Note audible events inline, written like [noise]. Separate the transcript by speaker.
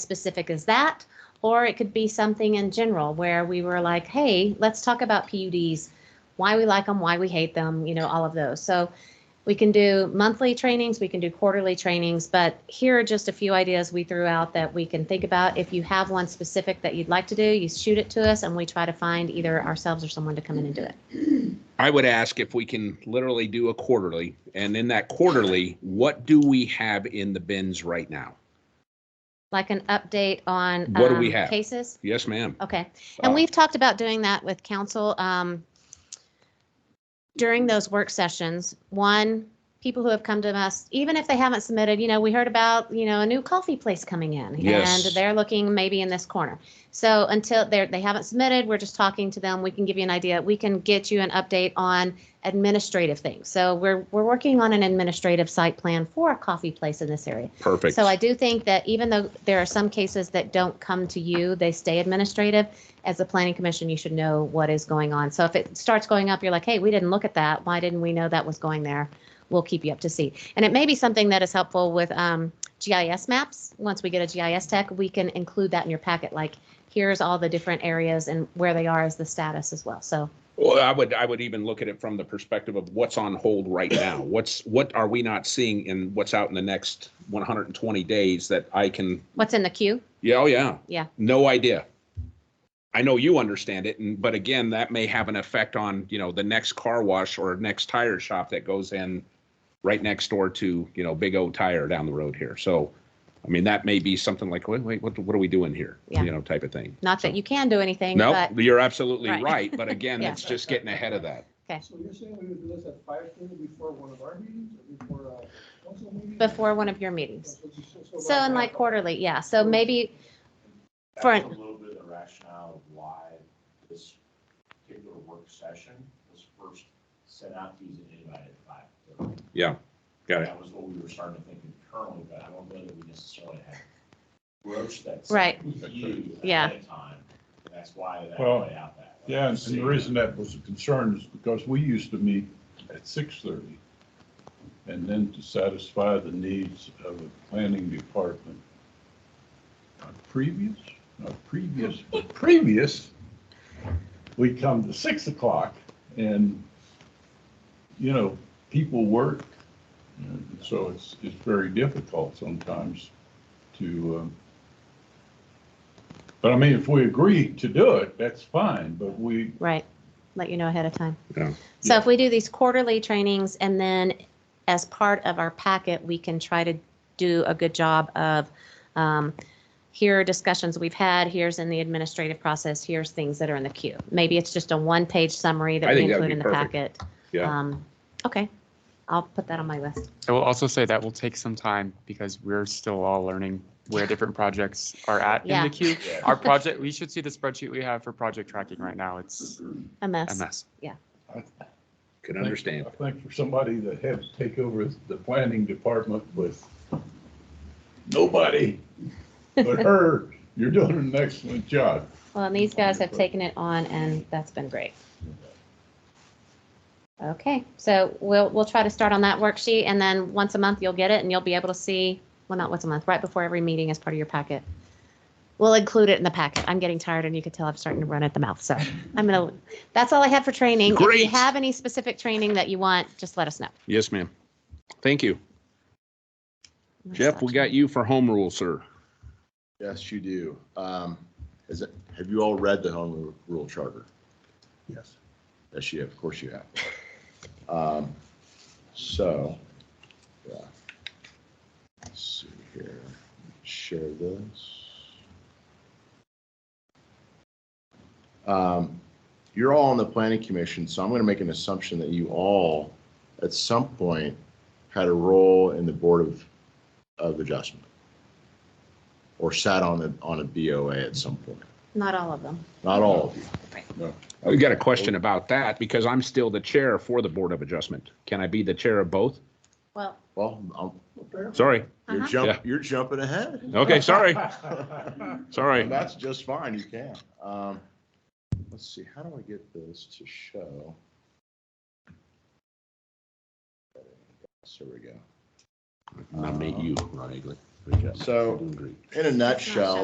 Speaker 1: specific as that, or it could be something in general where we were like, hey, let's talk about PUDs, why we like them, why we hate them, you know, all of those. So we can do monthly trainings, we can do quarterly trainings, but here are just a few ideas we threw out that we can think about. If you have one specific that you'd like to do, you shoot it to us and we try to find either ourselves or someone to come in and do it.
Speaker 2: I would ask if we can literally do a quarterly, and in that quarterly, what do we have in the bins right now?
Speaker 1: Like an update on
Speaker 2: What do we
Speaker 1: um,
Speaker 2: have?
Speaker 1: cases.
Speaker 2: Yes, ma'am.
Speaker 1: Okay. And
Speaker 2: Uh,
Speaker 1: we've talked about doing that with council um, during those work sessions. One, people who have come to us, even if they haven't submitted, you know, we heard about, you know, a new coffee place coming in.
Speaker 2: Yes.
Speaker 1: And they're looking maybe in this corner. So until they're, they haven't submitted, we're just talking to them. We can give you an idea. We can get you an update on administrative things. So we're, we're working on an administrative site plan for a coffee place in this area.
Speaker 2: Oh, Perfect.
Speaker 1: So I do think that even though there are some cases that don't come to you, they stay administrative. As a planning commission, you should know what is going on. So if it starts going up, you're like, hey, we didn't look at that. Why didn't we know that was going there? We'll keep you up to see. And it may be something that is helpful with um, GIS maps. Once we get a GIS tech, we can include that in your packet. Like, here's all the different areas and where they are as the status as well. So
Speaker 2: Well, I would, I would even look at it from the perspective of what's on hold right now. What's, what are we not seeing in what's out in the next one hundred and twenty days that I can,
Speaker 1: what's in the queue?
Speaker 2: yeah, oh, yeah.
Speaker 1: Yeah.
Speaker 2: No idea. I know you understand it, and, but again, that may have an effect on, you know, the next car wash or next tire shop that goes in right next door to, you know, Big O Tire down the road here. So, I mean, that may be something like, wait, wait, what, what are we doing here?
Speaker 1: Yeah.
Speaker 2: You know, type of thing.
Speaker 1: Not that you can do anything,
Speaker 2: No,
Speaker 1: but
Speaker 2: you're absolutely
Speaker 1: Right.
Speaker 2: right, but
Speaker 1: [laughs]
Speaker 2: again,
Speaker 1: Yeah.
Speaker 2: it's just getting ahead of that.
Speaker 3: So you're saying we would do this at five thirty before one of our meetings or before a council meeting?
Speaker 1: before one of your meetings. So in like
Speaker 3: quarter.
Speaker 1: quarterly, yeah. So maybe, for
Speaker 4: That's a
Speaker 1: an-
Speaker 4: little bit of the rationale of why this particular work session was first sent out to you and invited by.
Speaker 2: Yeah, got it.
Speaker 4: That was what we were starting to think internally, but I don't know that we necessarily had broached that.
Speaker 1: Right.
Speaker 4: subject with you
Speaker 1: Yeah.
Speaker 4: ahead of time. That's why that
Speaker 5: Well,
Speaker 4: played out that way.
Speaker 5: Yeah, and and the reason that was a concern is because we used to meet at six thirty. And then to satisfy the needs of the planning department, not previous, not previous, but previous, we come to six o'clock and, you know, people work. And So it's, it's very difficult sometimes to, um, but I mean, if we agree to do it, that's fine, but we,
Speaker 1: Right, let you know ahead of time.
Speaker 2: Yeah.
Speaker 1: So if we do these quarterly trainings and then as part of our packet, we can try to do a good job of, um, here are discussions we've had, here's in the administrative process, here's things that are in the queue. Maybe it's just a one-page summary
Speaker 2: I
Speaker 1: that we
Speaker 2: think that would
Speaker 1: include in
Speaker 2: be
Speaker 1: the
Speaker 2: perfect.
Speaker 1: packet.
Speaker 2: Yeah.
Speaker 1: Um, Okay, I'll put that on my list.
Speaker 6: I will also say that will take some time because we're still all learning where different projects are at in
Speaker 1: Yeah.
Speaker 6: the queue. Our project, we should see the spreadsheet we have for project tracking right now. It's
Speaker 1: A
Speaker 6: a
Speaker 1: mess.
Speaker 6: mess.
Speaker 2: Can understand.
Speaker 5: I think for somebody that had to take over the planning department with nobody but her, you're doing an excellent job.
Speaker 1: Well, and these guys have taken it on and that's been great. Okay, so we'll, we'll try to start on that worksheet and then once a month you'll get it and you'll be able to see, well, not once a month, right before every meeting as part of your packet. We'll include it in the packet. I'm getting tired and you can tell I'm starting to run at the mouth, so I'm gonna, that's all I have for training. If you
Speaker 2: Great.
Speaker 1: have any specific training that you want, just let us know.
Speaker 2: Yes, ma'am. Thank you. Jeff, we got you for home rule, sir.
Speaker 7: Yes, you do. Um, Is it, have you all read the home rule charter?
Speaker 5: Yes.
Speaker 7: Yes, you have, of course you have. Um, So, yeah. Let's see here, share this. Um, You're all on the planning commission, so I'm going to make an assumption that you all, at some point, had a role in the board of, of adjustment. Or sat on a, on a BOA at some point.
Speaker 1: Not all of them.
Speaker 7: Not all of you.
Speaker 2: We got a question about that because I'm still the chair for the Board of Adjustment. Can I be the chair of both?
Speaker 1: Well,
Speaker 7: Well, I'm-
Speaker 2: Sorry.
Speaker 7: you're
Speaker 1: Uh-huh.
Speaker 2: Yeah.
Speaker 7: jump, you're jumping
Speaker 4: [laughs]
Speaker 7: ahead.
Speaker 2: Okay, sorry,
Speaker 7: And
Speaker 2: sorry.
Speaker 7: That's just fine, you can. Um, let's see, how do I get this to show? So we go.
Speaker 2: Nominate you, Ron Eagle.
Speaker 7: So, in a nutshell,